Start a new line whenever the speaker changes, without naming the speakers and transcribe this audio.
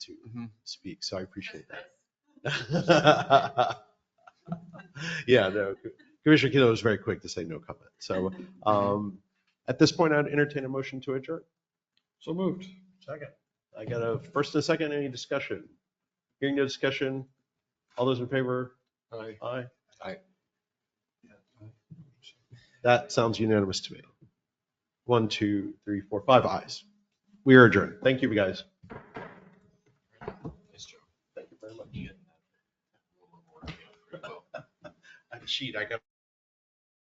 to speak, so I appreciate that. Yeah, no, Commissioner Kilo was very quick to say no comment. So um, at this point, I'd entertain a motion to adjourn.
So moved. Second.
I got a first and a second, any discussion? Hearing no discussion, all those in favor?
Aye.
Aye. That sounds unanimous to me. One, two, three, four, five ayes. We are adjourned. Thank you, guys. Thank you very much. I cheat, I got.